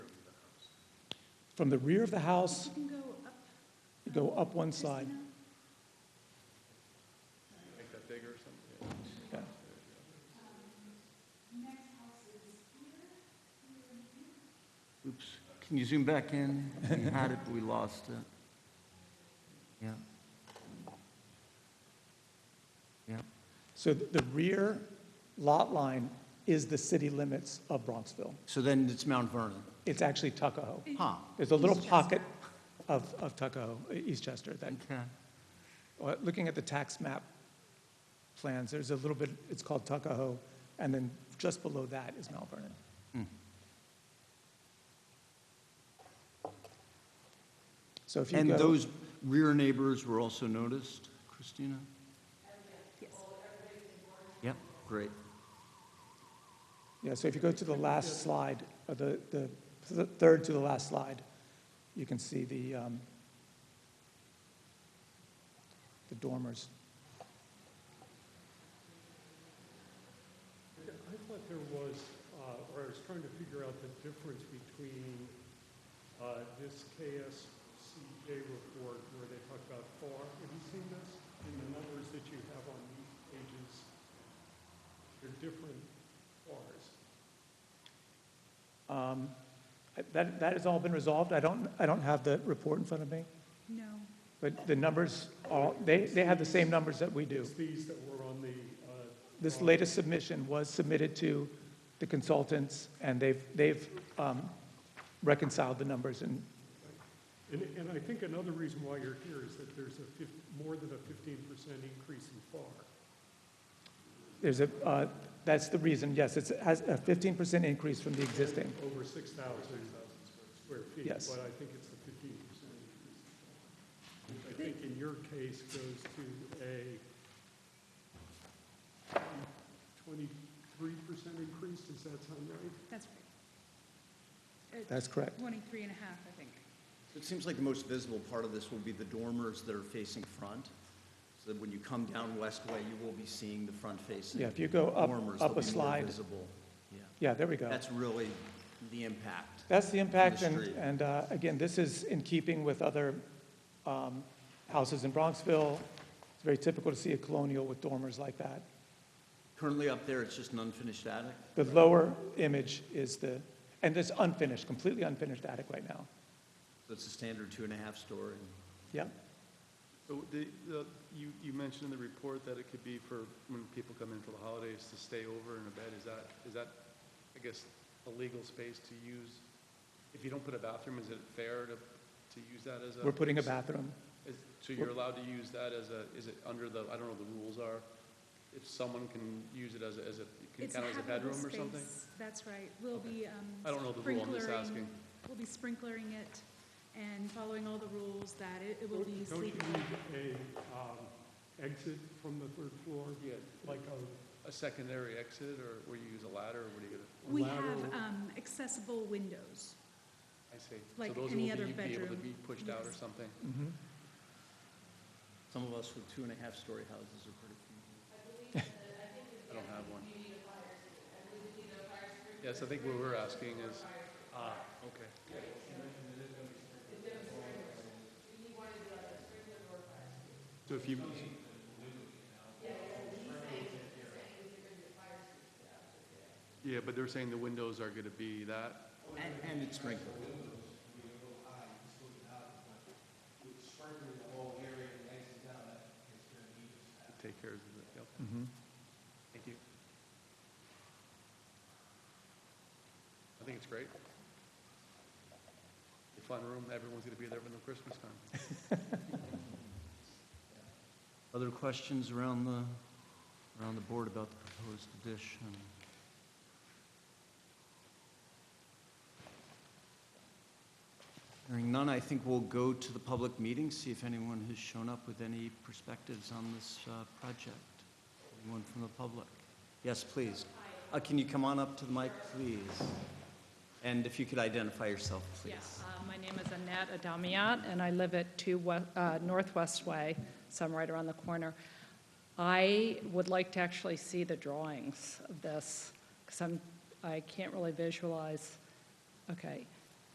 From the rear of the house, You can go up, you go up one side. Make that bigger or something? Oops, can you zoom back in? We had it, but we lost it. Yeah. Yeah, So th- the rear lot line is the city limits of Bronxville. so then it's Mount Vernon. It's actually Tuckahoe. Huh, There's a little East Chester. pocket of, of Tuckahoe, uh, East Chester, that, okay. uh, looking at the tax map plans, there's a little bit, it's called Tuckahoe, and then just below that is Mount Vernon. Hmm. So if you And go. those rear neighbors were also noticed, Christina? yes. Yep. Great. Yeah, so if you go to the last slide, or the, the th- third to the last slide, you can see the, um, the dormers. I thought there was, uh, or I was trying to figure out the difference between uh, this KSCJ report where they talk about FAR, have you seen this? And the numbers that you have on these pages, they're different FARs. Um, I- That, that has all been resolved. I don't, I don't have the report in front of me, No, but the numbers are, they, they have the same numbers that we do. It's these that were on the, uh, This latest submission was submitted to the consultants, and they've, they've um, reconciled the numbers, and and, and I think another reason why you're here is that there's a fif, more than a fifteen percent increase in FAR. there's a, uh, that's the reason, yes, it's, has a 15% increase from the existing. over 6,000 square feet. Yes. But I think it's the 15% increase. Which I think in your case goes to a 23% increase, does that sound right? that's right. That's correct. 23 and a half, I think. It seems like the most visible part of this will be the dormers that are facing front, so that when you come down Westway, you will be seeing the front facing. Yeah, if you go up- dormers, up a they'll be more slide. Visible, yeah. Yeah, there we go. That's really the impact. That's the impact, and, street. and uh, again, this is in keeping with other um, houses in Bronxville. It's very typical to see a colonial with dormers like that. Currently up there, it's just an unfinished attic. The lower image is the, and it's unfinished, completely unfinished attic right now. So it's a standard two and a half story. Yep, So Oh, the, the, you, you mentioned in the report that it could be for when people come in for the holidays to stay over in a bed. Is that, is that, I guess, a legal space to use? If you don't put a bathroom, is it fair to, to use that as a? we're putting a bathroom. Is- So you're allowed to use that as a, is it under the, I don't know what the rules are, if someone can use it as a, as a, it can It's count as a habitable bedroom or something? space, That's right. We'll be um, I don't know the rule, I'm just sprinklering- asking. We'll be sprinklering it and following all the rules that it it Don't will be don't you sleeping. need a um, exit from the third floor? Yeah, Like a, a secondary exit, or where you use a ladder, or what do you, gonna- We have Lateral. um, accessible windows. I see. Like So those any will other be- be able bedroom. to be pushed out or Yes. something? Mhm. Some of us with two and a half story houses are pretty few. I don't have one. Yes, I think what we're asking is, ah, okay. so if you, Yeah, but they're saying the windows are gonna be that, And, and it's sprinkled. to take care of the, yep. Thank you. I think it's great. A fun room, everyone's gonna be there when the Christmas time. Other questions around the, around the board about the proposed addition? Hearing none, I think we'll go to the public meeting, see if anyone has shown up with any perspectives on this uh, project. Anyone from the public? Yes, please. Uh, Can you come on up to the mic, please? And if you could identify yourself, please. Yes, uh, my name is Annette Adamiat, and I live at 2 we- uh, Northwest Way, so I'm right around the corner. I would like to actually see the drawings of this, because I'm, I can't really visualize. Okay.